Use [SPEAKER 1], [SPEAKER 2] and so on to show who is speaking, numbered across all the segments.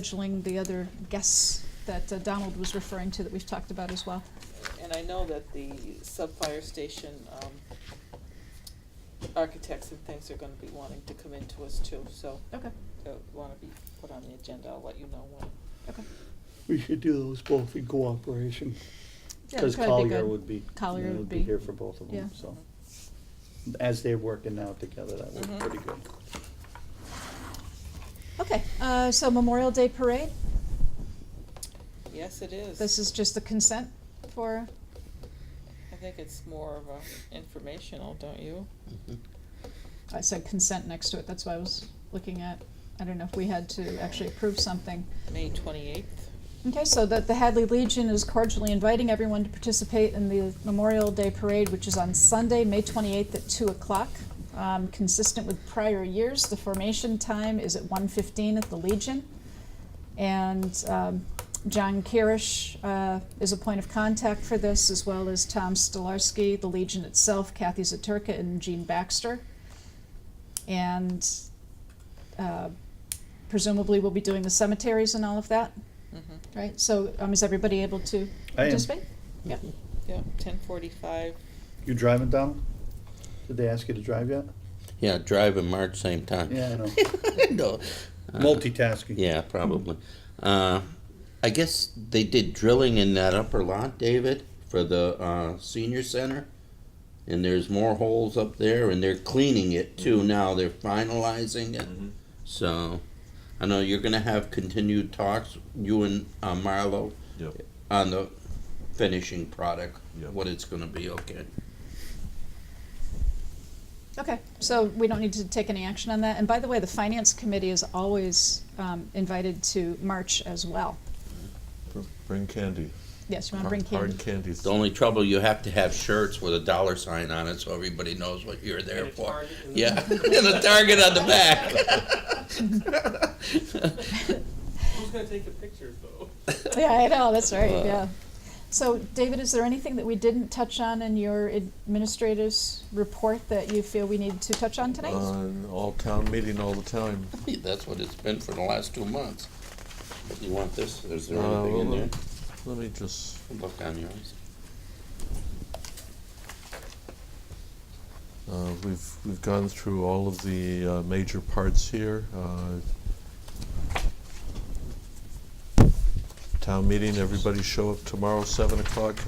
[SPEAKER 1] scheduling the other guests that uh, Donald was referring to that we've talked about as well.
[SPEAKER 2] And I know that the sub-fire station, um, architects and things are gonna be wanting to come into us too, so.
[SPEAKER 1] Okay,
[SPEAKER 2] They'll wanna be put on the agenda, I'll let you know when.
[SPEAKER 1] okay.
[SPEAKER 3] We should do those both in cooperation,
[SPEAKER 1] Yeah,
[SPEAKER 3] because
[SPEAKER 1] that'd be
[SPEAKER 3] Collier
[SPEAKER 1] good.
[SPEAKER 3] would be,
[SPEAKER 1] Collier
[SPEAKER 3] you know,
[SPEAKER 1] would
[SPEAKER 3] would
[SPEAKER 1] be-
[SPEAKER 3] be here for both of
[SPEAKER 1] yeah.
[SPEAKER 3] them, so. As they're working out together, that
[SPEAKER 2] Mhm.
[SPEAKER 3] worked
[SPEAKER 1] Mm-hmm.
[SPEAKER 3] pretty good.
[SPEAKER 1] Okay, uh, so Memorial Day Parade,
[SPEAKER 2] Yes, it is.
[SPEAKER 1] this is just the consent for,
[SPEAKER 2] I think it's more of a informational, don't you?
[SPEAKER 1] I said consent next to it, that's why I was looking at, I don't know if we had to actually approve something.
[SPEAKER 2] May twenty-eighth.
[SPEAKER 1] Okay, so that the Hadley Legion is cordially inviting everyone to participate in the Memorial Day Parade, which is on Sunday, May 28th at 2 o'clock. Um, Consistent with prior years, the formation time is at 1:15 at the Legion. And um, John Kirish uh, is a point of contact for this, as well as Tom Stolarski, the Legion itself, Kathy Zaturka, and Gene Baxter. And uh, presumably, we'll be doing the cemeteries and all of that.
[SPEAKER 2] Mm-hmm.
[SPEAKER 1] Right, so um, is everybody able to
[SPEAKER 3] I am.
[SPEAKER 1] participate? Yeah,
[SPEAKER 2] Yeah, ten forty-five.
[SPEAKER 3] You driving, Donald? Did they ask you to drive yet?
[SPEAKER 4] Yeah, drive and march same time.
[SPEAKER 3] Yeah, I know.
[SPEAKER 4] No. Uh,
[SPEAKER 3] Multitasking.
[SPEAKER 4] Yeah, probably. Uh, I guess they did drilling in that upper lot, David, for the uh, senior center. And there's more holes up there, and they're cleaning it too
[SPEAKER 5] Mm-hmm.
[SPEAKER 4] now. They're finalizing it. So I know you're going to have continued talks, you and uh, Marlo,
[SPEAKER 5] Yep.
[SPEAKER 4] on the finishing product,
[SPEAKER 5] Yep.
[SPEAKER 4] what it's going to be, okay?
[SPEAKER 1] okay, so we don't need to take any action on that. And by the way, the finance committee is always um, invited to March as well.
[SPEAKER 5] Bring candy.
[SPEAKER 1] Yes, you want to bring
[SPEAKER 5] Hard-
[SPEAKER 1] candy?
[SPEAKER 5] Hard candies.
[SPEAKER 4] The only trouble you have to have shirts with a dollar sign on it so everybody knows what you're there for. yeah, and a target on the back.
[SPEAKER 6] Who's gonna take the pictures though?
[SPEAKER 1] Yeah, I know, that's right,
[SPEAKER 4] Uh.
[SPEAKER 1] yeah. So, David, is there anything that we didn't touch on in your administrator's report that you feel we need to touch on tonight?
[SPEAKER 4] Uh.
[SPEAKER 5] On Uh, all town meeting all the time.
[SPEAKER 4] That's what it's been for the last two months. You want this? Is there
[SPEAKER 5] Uh,
[SPEAKER 4] anything in
[SPEAKER 5] well,
[SPEAKER 4] there?
[SPEAKER 5] Let me just,
[SPEAKER 4] Look on yours.
[SPEAKER 5] uh, we've, we've gone through all of the, uh, major parts here, uh. Town meeting, everybody show up tomorrow, seven o'clock,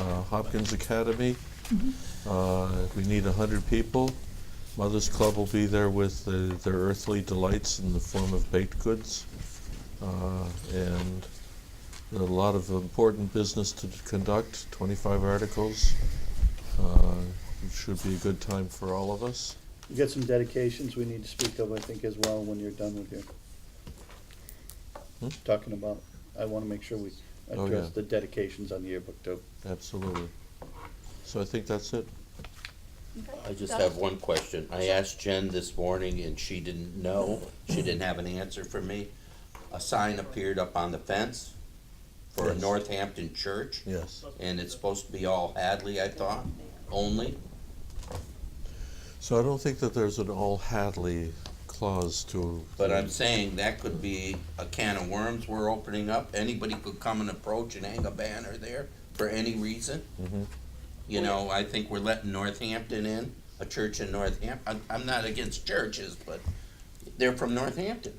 [SPEAKER 5] uh, Hopkins Academy.
[SPEAKER 1] Mm-hmm.
[SPEAKER 5] Uh, we need a hundred people. Mother's Club will be there with the- their earthly delights in the form of baked goods. Uh, And a lot of important business to conduct, twenty-five articles. Uh, It should be a good time for all of us.
[SPEAKER 3] You got some dedications we need to speak of, I think, as well, when you're done with your,
[SPEAKER 5] Hmm?
[SPEAKER 3] talking about, I wanna make sure we
[SPEAKER 5] Oh,
[SPEAKER 3] address
[SPEAKER 5] yeah.
[SPEAKER 3] the dedications on the yearbook too.
[SPEAKER 5] Absolutely. So I think that's it.
[SPEAKER 4] I just have one question. I asked Jen this morning and she didn't know. She didn't have an answer for me. A sign appeared up on the fence for a
[SPEAKER 5] Yes.
[SPEAKER 4] Northampton church.
[SPEAKER 5] Yes.
[SPEAKER 4] And it's supposed to be all Hadley, I thought, only.
[SPEAKER 5] So I don't think that there's an all Hadley clause to.
[SPEAKER 4] But I'm saying that could be a can of worms we're opening up. Anybody could come and approach and hang a banner there for any reason.
[SPEAKER 5] Mhm.
[SPEAKER 4] You know, I think we're letting Northampton in, a church in Northampton. I'm not against churches, but they're from Northampton.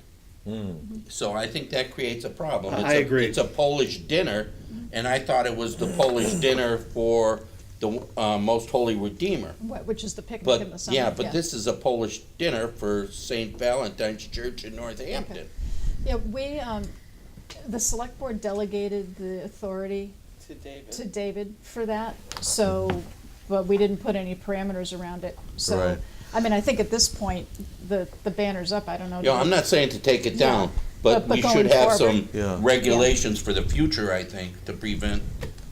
[SPEAKER 5] Mm.
[SPEAKER 4] So I think that creates a problem.
[SPEAKER 3] I-
[SPEAKER 4] It's
[SPEAKER 3] I
[SPEAKER 4] a-
[SPEAKER 3] agree.
[SPEAKER 4] It's a Polish dinner, and I thought it was the Polish dinner for the uh, Most Holy Redeemer.
[SPEAKER 1] Wh- Which is the picnic in the
[SPEAKER 4] But,
[SPEAKER 1] summer?
[SPEAKER 4] yeah, but this is a Polish dinner for St. Valentine's Church in Northampton.
[SPEAKER 1] Yeah, we, um, the select board delegated the authority
[SPEAKER 2] To David.
[SPEAKER 1] to David for that, so, but we didn't put any parameters around it, so.
[SPEAKER 5] Right.
[SPEAKER 1] I mean, I think at this point, the, the banner's up, I don't know.
[SPEAKER 4] You know, I'm not saying to take it down,
[SPEAKER 1] Yeah. But-
[SPEAKER 4] but
[SPEAKER 1] but
[SPEAKER 4] we
[SPEAKER 1] going
[SPEAKER 4] should
[SPEAKER 1] forward.
[SPEAKER 4] have some
[SPEAKER 5] Yeah.
[SPEAKER 4] regulations for the future, I think, to prevent,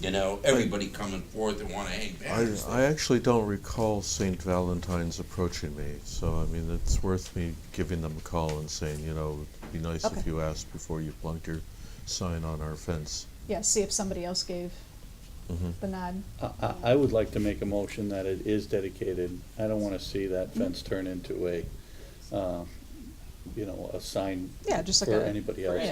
[SPEAKER 4] you know, everybody coming forth and wanna hang
[SPEAKER 5] I,
[SPEAKER 4] banners.
[SPEAKER 5] I actually don't recall St. Valentine's approaching me, so I mean, it's worth me giving them a call and saying, you know, it'd be nice
[SPEAKER 1] Okay.
[SPEAKER 5] if you asked before you plunked your sign on our fence.
[SPEAKER 1] Yeah, see if somebody else gave
[SPEAKER 4] Mm-hmm.
[SPEAKER 5] Mhm.
[SPEAKER 1] the nod.
[SPEAKER 3] I, I, I would like to make a motion that it is dedicated. I don't wanna see that fence turn into a, uh, you know, a sign
[SPEAKER 1] Yeah, just like
[SPEAKER 3] for
[SPEAKER 1] a-
[SPEAKER 3] anybody else.